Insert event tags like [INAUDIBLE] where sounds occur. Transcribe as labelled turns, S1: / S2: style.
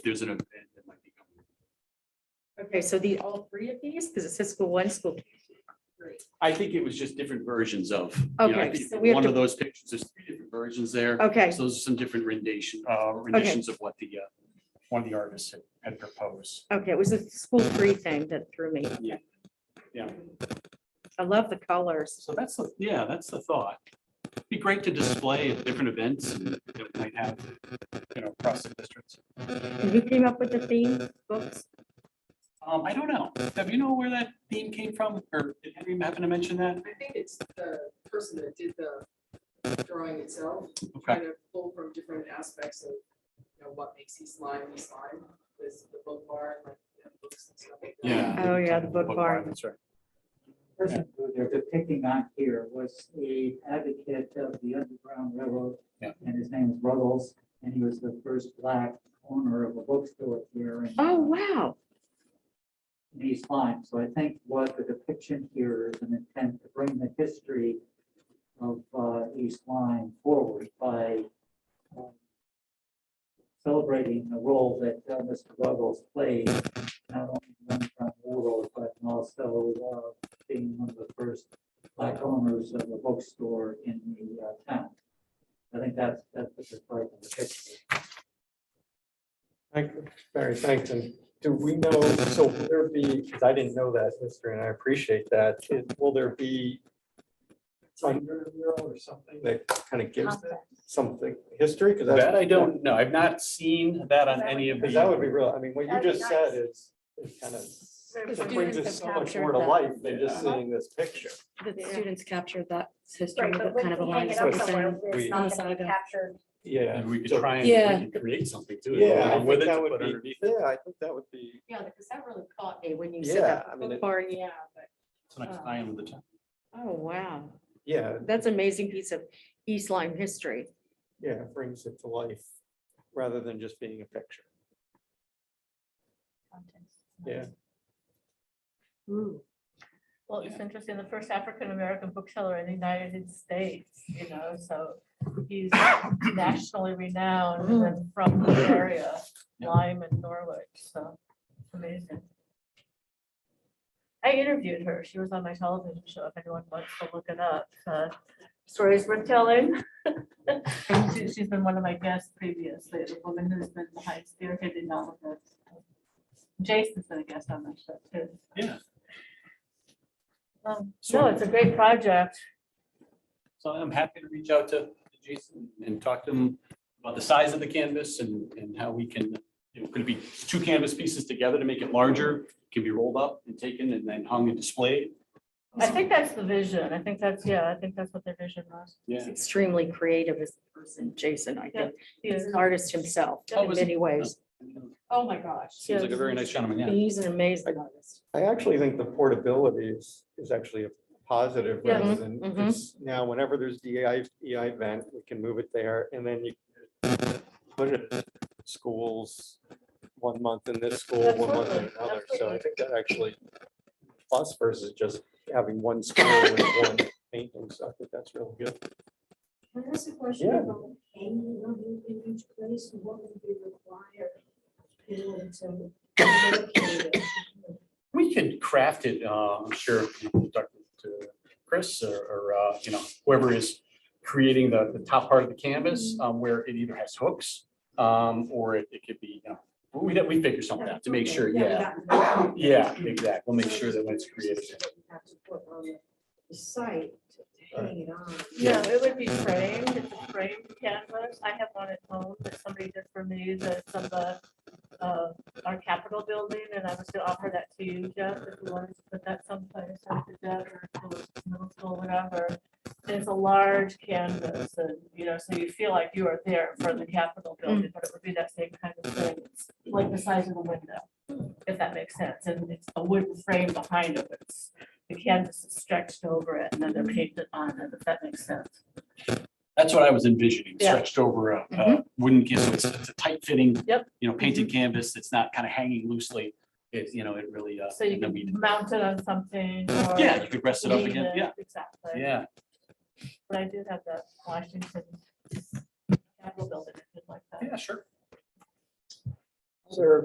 S1: there's an event that might be coming.
S2: Okay, so the, all three of these, because it says school one, school. two, three.
S1: I think it was just different versions of. you know, I
S2: Okay,
S1: think
S2: so we have
S1: One
S2: to-
S1: of those pictures, there's three different versions there.
S2: Okay,
S1: So those are some different rendition, uh, renditions of what the, uh, one of the artists had- had proposed.
S2: okay, it was the school three thing that threw me.
S1: Yeah. Yeah.
S2: I love the colors.
S1: So that's, the yeah, that's the thought. It'd Be great to display at different events and that we might have, you know, across the districts.
S2: And Who came up with the theme books?
S1: Um, I don't know. Have you know where that theme came from? Or did Henry happen to mention that?
S3: I think it's the person that did the drawing itself,
S1: Okay,
S3: kind of pulled from different aspects of, you know, what makes you slime, you slime, was the book bar and like. the books and stuff like that.
S1: yeah.
S2: Oh, yeah, the book
S1: bar,
S2: bar.
S1: That's right.
S4: person who they're depicting on here was a advocate of the Underground Railroad.
S1: Yeah.
S4: And his name was Ruggles, and he was the first black owner of a bookstore here. in-
S2: Oh, wow.
S4: In East Lyme, so I think what the depiction here is an intent to bring the history of uh, East Lyme forward by uh, celebrating the role that uh, Mr. Ruggles played, not only in the Underground Railroad, but also uh, being one of the first black owners of a bookstore in the uh, town. I think that's, that's the part of the picture.
S5: Thank, Mary, thanks. And do we know, so will there be, because I didn't know that, Mr. and I appreciate that. Is- Will there be under mural or something that kind of gives that something history? Because
S1: That I don't know. I've not seen that on any of
S5: Because that would
S1: the.
S5: be real. I mean, what you
S6: That'd be
S5: just said
S6: nice.
S5: is, is kind of,
S6: The
S5: it
S6: students
S5: brings
S6: have
S5: us so much
S6: captured
S5: more to
S6: that.
S5: life than just
S1: Yeah.
S5: seeing this picture.
S7: The
S6: Yeah.
S7: students captured that history
S6: Right,
S7: that
S6: but
S7: kind
S6: when
S7: of
S6: we hang
S7: aligns
S6: it up
S7: with
S6: somewhere,
S7: them.
S6: where
S5: We-
S6: it's not gonna be
S7: Nostalgia.
S6: captured.
S5: Yeah.
S1: And we could
S5: So-
S1: try
S7: Yeah.
S1: and we could create something too.
S5: Yeah, I
S1: With
S5: think
S1: it
S5: that
S1: to
S5: would
S1: put
S5: be,
S1: underneath it.
S5: yeah, I think that would be,
S2: Yeah, because that really caught me when you
S5: said that, Yeah, I the mean, book it-
S2: Bar, yeah,
S1: It's like I am the time.
S2: Oh, wow.
S5: yeah,
S2: That's an amazing piece of East Lyme history.
S5: yeah, it brings it to life rather than just being a picture. Yeah.
S6: Well, it's interesting, the first African-American bookseller in the United States, you know, so he's
S1: [COUGHS]
S6: nationally renowned and then
S1: Mm.
S6: from the area, Lyme and Norwich, so amazing. I interviewed her, she was on my television show, if anyone wants to look it up, uh, stories we're telling. [LAUGHS] And she- She's been one of my guests previously, the woman who's been behind spearheading all of this. Jason's been a guest on my show too.
S1: Yeah.
S6: Um,
S1: So-
S6: No, it's a great project.
S1: So I'm happy to reach out to Jason and talk to him about the size of the canvas and, and how we can, you know, could it be two canvas pieces together to make it larger? Can be rolled up and taken and then hung and displayed.
S6: I think that's the vision. I think that's, yeah, I think that's what their vision was.
S1: Yeah.
S2: He's extremely creative as a person, Jason, I
S6: Yeah.
S2: think. He's an artist himself
S1: Oh,
S2: in
S1: is he?
S2: many ways.
S6: Oh, my gosh.
S1: Seems like a very nice gentleman, yeah.
S2: He's an amazing artist.
S5: I actually think the portability is, is actually a positive
S6: Yeah. Mm-hmm.
S5: rather than,
S2: Mhm, mhm.
S5: because now whenever there's DEI, EI event, we can move it there and then you put it at schools, one month in this school, one month in
S6: Absolutely,
S5: another. So I
S6: absolutely.
S5: think that actually plus versus just having one school with one painting. So I think that's really good.
S8: Can I ask a question
S5: Yeah.
S8: about hanging them in each place and what would be required in order to relocate it?
S1: We could craft it, uh, I'm sure, if you talk to Chris or, or, uh, you know, whoever is creating the, the top part of the canvas,
S6: Mm-hmm.
S1: um, where it either has hooks, um, or it, it could be, you know, we, we figure something out [COUGHS] to make sure, yeah.
S8: that-
S1: Yeah, exactly. We'll make sure that when it's created.
S8: You Have to put on the- the site to hang it on.
S6: Yeah, it would be framed, it's a framed canvas. I have one at home that somebody did for me, that's from the, uh, our Capitol building, and I was gonna offer that to you, Jeff, if you wanted to put that someplace after that, or to a middle school, whatever. And It's a large canvas, and, you know, so you feel like you are there for the Capitol building, but it would be that same kind of thing, It's like the size of a window, if that makes sense, and it's a wooden frame behind it, but it's the canvas is stretched over it and then they're painted on it, if that makes sense.
S1: That's what I was envisioning,
S6: Yeah. Mm-hmm.
S1: stretched over a- a
S2: Mhm.
S1: wooden, ca- so it's it's a tight fitting.
S6: Yep. Mm-hmm.
S1: You know, painted canvas that's not kind of hanging loosely. It, you know, it really, uh.
S6: So you
S1: and then we-
S6: can mount it on something or.
S1: Yeah, you could rest it up
S6: leave
S1: again.
S6: it,
S1: Yeah,
S6: Exactly.
S1: yeah.
S6: But I do have that Washington Capitol building, if you'd like that.
S1: Yeah, sure.
S5: Sir,